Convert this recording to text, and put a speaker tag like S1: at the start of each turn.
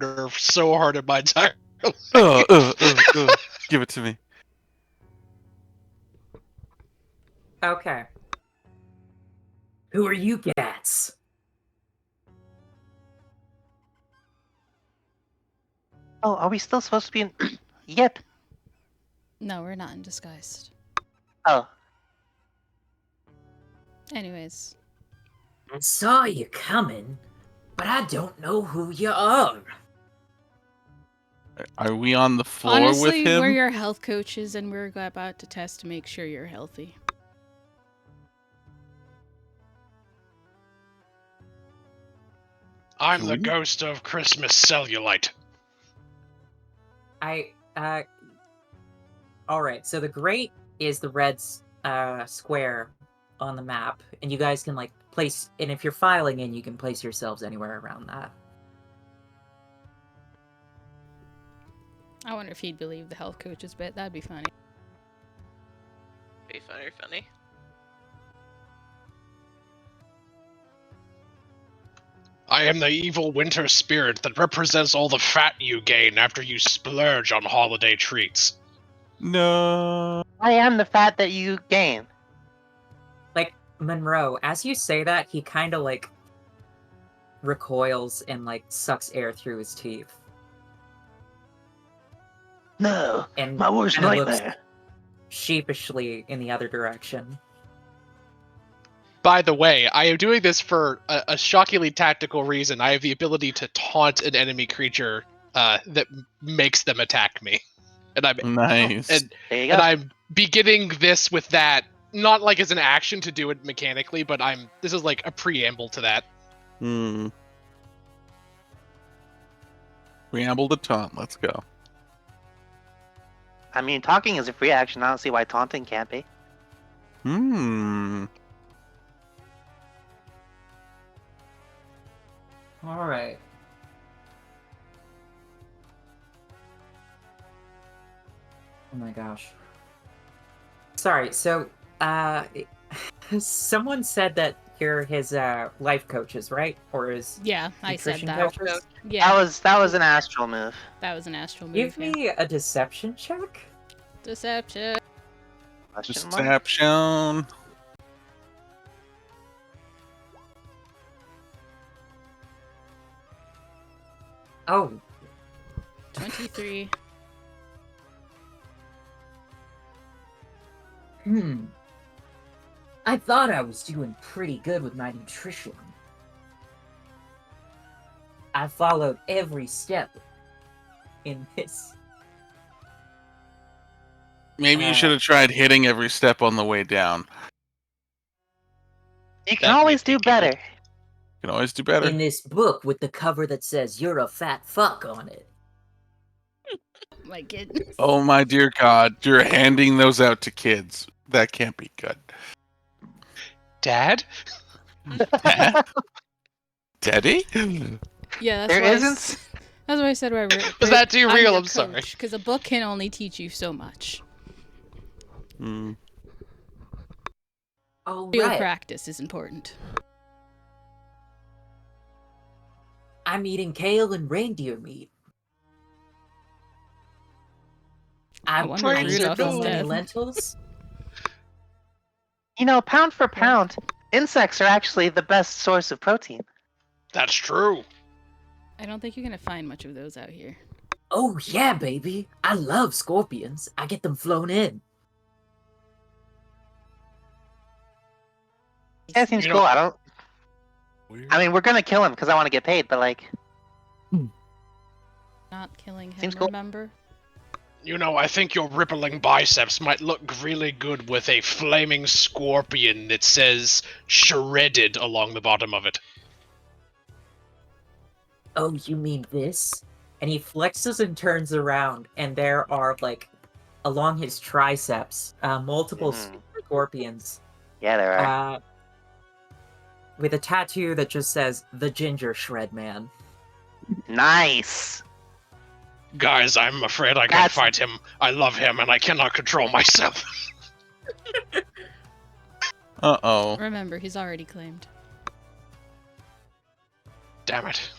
S1: nerve so hard in my entire
S2: Uh, uh, uh, uh. Give it to me.
S3: Okay. Who are you, Gats?
S4: Oh, are we still supposed to be in? yep.
S5: No, we're not in disguise.
S4: Oh,
S5: Anyways,
S3: I saw you coming, but I don't know who you are.
S2: Are we on the floor
S5: honestly,
S2: with him?
S5: we're your health coaches, and we're about to test to make sure you're healthy.
S1: I'm the
S2: Hmm?
S1: ghost of Christmas cellulite.
S3: I uh all right, so the great is the red s- uh square on the map and you guys can like place and if you're filing in you can place yourselves anywhere around that.
S5: I wonder if he'd believe the health coaches bit. That'd be funny.
S6: Be funny, funny.
S1: I am the evil winter spirit that represents all the fat you gain after you splurge on holiday treats.
S2: No.
S4: I am the fat that you gain.
S3: Monroe, as you say that, he kind of like recoils and like sucks air through his teeth
S4: No,
S3: and
S4: my worst
S3: kinda looks
S4: nightmare.
S3: sheepishly in the other direction.
S1: By the way, I am doing this for a, a shockingly tactical reason. I have the ability to taunt an enemy creature uh, that m- makes them attack me, and I'm
S2: Nice.
S1: and,
S4: There you go.
S1: and I'm beginning this with that. Not like as an action to do it mechanically, but I'm this is like a preamble to that.
S2: Hmm. Preamble to Tom. Let's go.
S4: I mean, talking is a free action. I don't see why taunting can't be.
S2: Hmm.
S3: All right. Oh my gosh. Sorry. So, uh, someone said that you're his uh life coaches, right? Or his
S5: Yeah, I said
S3: nutrition
S5: that.
S3: coaches?
S5: Yeah,
S4: That was that was an astral move.
S5: that was an astral move.
S3: Give
S5: yeah.
S3: me a deception check.
S5: Deception.
S4: Question mark?
S2: Deception.
S3: Oh,
S5: 23.
S3: hmm. I thought I was doing pretty good with my nutrition. I followed every step in this
S2: Maybe
S3: Uh,
S2: you should have tried hitting every step on the way down. You
S4: You
S1: That
S4: can always
S1: may
S4: do
S1: be capable.
S4: better.
S2: can always do better.
S3: in this book with the cover that says "You're a fat fuck" on it.
S5: My goodness.
S2: Oh my dear God, you're handing those out to kids. That can't be good.
S1: Dad,
S2: Daddy?
S5: Yeah, that's
S4: There
S5: why I
S4: isn't
S5: s- That's why I said why we're.
S1: was that too real? I'm sorry.
S5: Because a book can only teach you so much.
S2: Hmm.
S3: Oh
S5: Real practice is important.
S3: I'm eating kale and reindeer meat. I'm
S5: wonder if
S3: eating
S5: Rudolph
S3: so
S5: is
S3: many
S5: dead.
S3: lentils.
S4: You know, pound for pound, insects are actually the best source of protein.
S1: that's true.
S5: I don't think you're gonna find much of those out here.
S3: Oh yeah, baby! I love scorpions. I get them flown in.
S4: Yeah, it seems
S1: You know-
S4: cool. I don't. I mean, we're gonna kill him because I want to get paid, but like,
S5: Not killing him.
S4: Seems cool.
S5: Remember?
S1: You know, I think your rippling biceps might look really good with a flaming scorpion that says shredded along the bottom of it.
S3: Oh, you mean this? And he flexes and turns around, and there are like along his triceps uh, multiple
S4: Mhm.
S3: scorpions
S4: yeah, there are.
S3: uh, with a tattoo that just says "The Ginger Shred Man."
S4: nice.
S1: Guys, I'm afraid I can't
S4: That's-
S1: fight him. I love him and I cannot control myself.
S2: Uh oh.
S5: Remember, he's already claimed.
S1: Damn it.